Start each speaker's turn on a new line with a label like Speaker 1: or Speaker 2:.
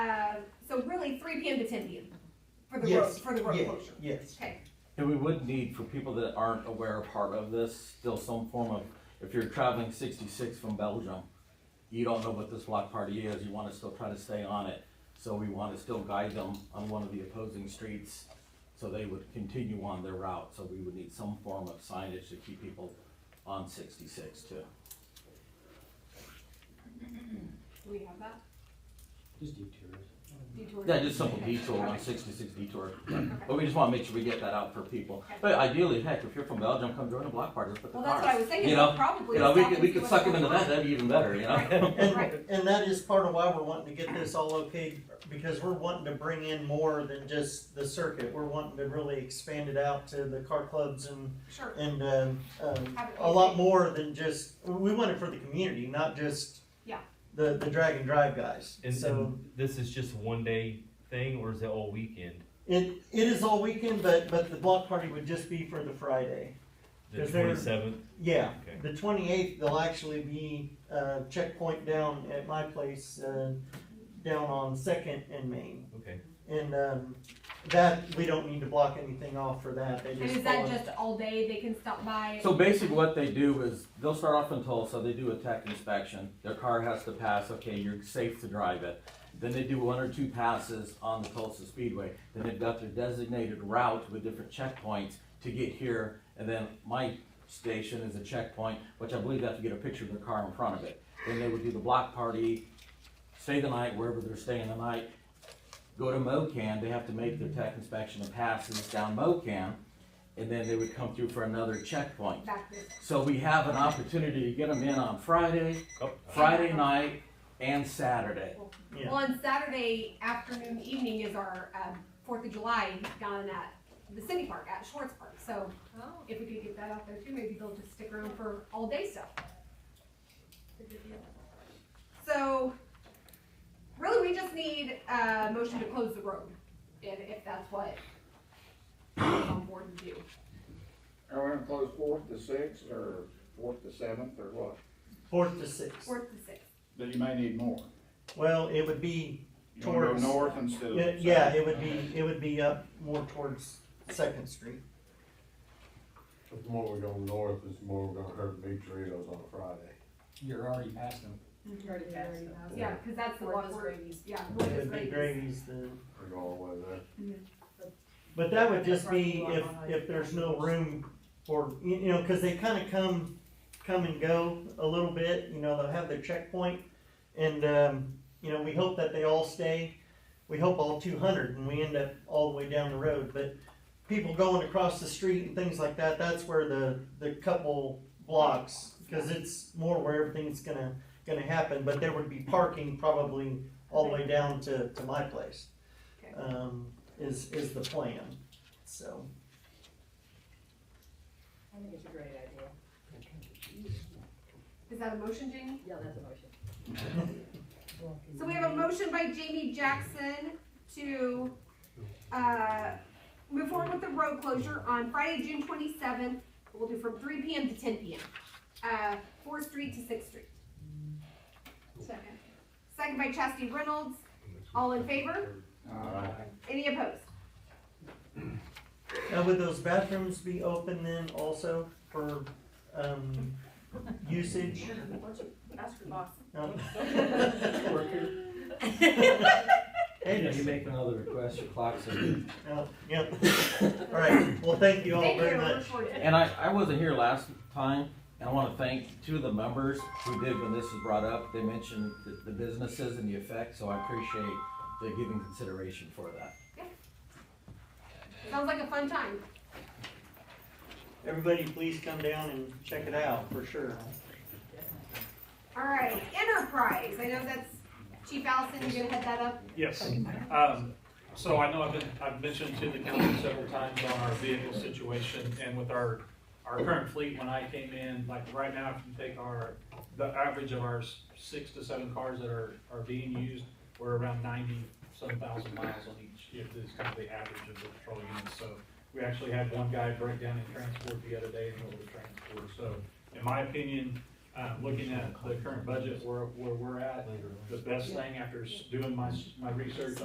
Speaker 1: Um, three PM to ten PM for the road,
Speaker 2: Yes,
Speaker 1: for the road
Speaker 2: yeah,
Speaker 1: closure.
Speaker 2: Yes.
Speaker 1: Okay,
Speaker 3: And we would need, for people that aren't aware or part of this, still some form of, if you're traveling sixty-six from Belgium, you don't know what this block party is, you wanna still try to stay on it. So we wanna still guide them on one of the opposing streets, so they would continue on their route, so we would need some form of signage to keep people on sixty-six too.
Speaker 1: do we have that?
Speaker 4: Just detours.
Speaker 1: Detour?
Speaker 3: Yeah, just simple
Speaker 1: Okay.
Speaker 3: detour,
Speaker 1: Okay.
Speaker 3: on sixty-six detour,
Speaker 1: Okay.
Speaker 3: but we just wanna make sure we get that out for people. But ideally, heck, if you're from Belgium, come join a block party, let's put the
Speaker 1: Well,
Speaker 3: cars.
Speaker 1: that's what I was thinking,
Speaker 3: You know,
Speaker 1: probably.
Speaker 3: You know, we
Speaker 1: stop
Speaker 3: could,
Speaker 1: and
Speaker 3: we
Speaker 1: see
Speaker 3: could
Speaker 1: what's
Speaker 3: suck them
Speaker 1: going
Speaker 3: into that,
Speaker 1: on.
Speaker 3: that'd be even better, you know?
Speaker 1: Right, right.
Speaker 2: And that is part of why we're wanting to get this all okay, because we're wanting to bring in more than just the circuit. We're wanting to really expand it out to the car clubs and,
Speaker 1: Sure.
Speaker 2: and, um, um,
Speaker 1: Have it
Speaker 2: a lot
Speaker 1: be-
Speaker 2: more than just, we want it for the community, not just
Speaker 1: Yeah.
Speaker 2: the, the drag and drive guys.
Speaker 5: And,
Speaker 2: So
Speaker 5: and this is just one day thing, or is it all weekend?
Speaker 2: it, it is all weekend, but, but the block party would just be for the Friday.
Speaker 5: The
Speaker 2: Is there-
Speaker 5: twenty seventh.
Speaker 2: Yeah.
Speaker 5: Okay.
Speaker 2: The twenty-eighth, they'll actually be, uh, checkpoint down at my place, uh, down on Second and Main.
Speaker 5: Okay.
Speaker 2: And, um, that, we don't need to block anything off for that, they
Speaker 1: And
Speaker 2: just.
Speaker 1: is that
Speaker 2: follow-
Speaker 1: just all day, they can stop by?
Speaker 3: So basically what they do is, they'll start off in Tulsa, they do a tech inspection, their car has to pass, okay, you're safe to drive it. Then they do one or two passes on the Tulsa Speedway, then they've got their designated route with different checkpoints to get here. And then my station is a checkpoint, which I believe they have to get a picture of their car in front of it. Then they would do the block party, stay the night wherever they're staying the night. Go to MoCan, they have to make their tech inspection and passes down MoCan, and then they would come through for another checkpoint.
Speaker 1: Back this,
Speaker 3: So we have an opportunity to get them in on Friday,
Speaker 5: Oh,
Speaker 3: Friday night, and Saturday.
Speaker 2: Yeah.
Speaker 1: well, on Saturday afternoon, evening is our, um, Fourth of July down at the city park, at Schwartz Park, so
Speaker 6: Oh,
Speaker 1: if we could get that out there too, maybe they'll just stick around for all day stuff. So, really, we just need a motion to close the road, if, if that's what we're on board to do.
Speaker 7: Are we gonna close fourth to sixth, or fourth to seventh, or what?
Speaker 2: Fourth to sixth.
Speaker 1: Fourth to sixth,
Speaker 7: Then you may need more.
Speaker 2: Well, it would be,
Speaker 7: You wanna go
Speaker 2: Towards-
Speaker 7: north instead of.
Speaker 2: yeah, yeah, it would
Speaker 7: south?
Speaker 2: be, it would be up more towards Second Street.
Speaker 8: The more we go north, it's more we're gonna hurt Big Doritos on a Friday.
Speaker 4: You're already past them.
Speaker 6: you already passed it.
Speaker 1: yeah, cause that's the
Speaker 6: Fourth
Speaker 1: one
Speaker 6: is
Speaker 1: we're,
Speaker 6: Grady's.
Speaker 1: yeah. fourth
Speaker 2: It
Speaker 1: is
Speaker 2: would be
Speaker 1: Grady's.
Speaker 2: Grady's the,
Speaker 8: We're going all the way there.
Speaker 2: but that would just be if, if there's no room for, you, you know, cause they kinda come, come and go a little bit, you know, they'll have their checkpoint. And, um, you know, we hope that they all stay, we hope all two hundred and we end up all the way down the road, but people going across the street and things like that, that's where the, the couple blocks, cause it's more where everything's gonna, gonna happen, but there would be parking probably all the way down to, to my place.
Speaker 1: Okay.
Speaker 2: Um, is, is the plan, so.
Speaker 6: I think it's a great idea.
Speaker 1: Is that a motion, Jamie?
Speaker 6: Yeah, that's a motion.
Speaker 1: So we have a motion by Jamie Jackson to, uh, move forward with the road closure on Friday, June twenty-seventh. We'll do from three PM to ten PM, uh, Fourth Street to Sixth Street. Second. Second by Chastity Reynolds. All in favor?
Speaker 7: Uh,
Speaker 1: Any opposed?
Speaker 2: Now, would those bathrooms be open then also for, um, usage?
Speaker 1: That's your boss.
Speaker 2: No?
Speaker 3: Hey,
Speaker 2: Hey,
Speaker 3: you make another request, your clock's in.
Speaker 2: no, yep. All right, well, thank you all
Speaker 1: Thank you,
Speaker 2: very
Speaker 1: we're
Speaker 2: much.
Speaker 1: recording.
Speaker 3: And I, I wasn't here last time, and I wanna thank two of the members who did when this was brought up. They mentioned the, the businesses and the effect, so I appreciate the giving consideration for that.
Speaker 1: Sounds like a fun time.
Speaker 2: Everybody, please come down and check it out, for sure.
Speaker 1: All right, Enterprise. I know that's Chief Allison, you're gonna head that up.
Speaker 9: Yes. Um, So I know I've been, I've mentioned to the council several times on our vehicle situation and with our, our current fleet, when I came in, like right now, if you take our, the average of our s- six to seven cars that are, are being used, we're around ninety-some thousand miles on each, if this is kind of the average of the patrol units. So we actually had one guy break down in transport the other day in order to transport. So in my opinion, uh, looking at the current budget where, where we're at, the best thing after s- doing my, s- my research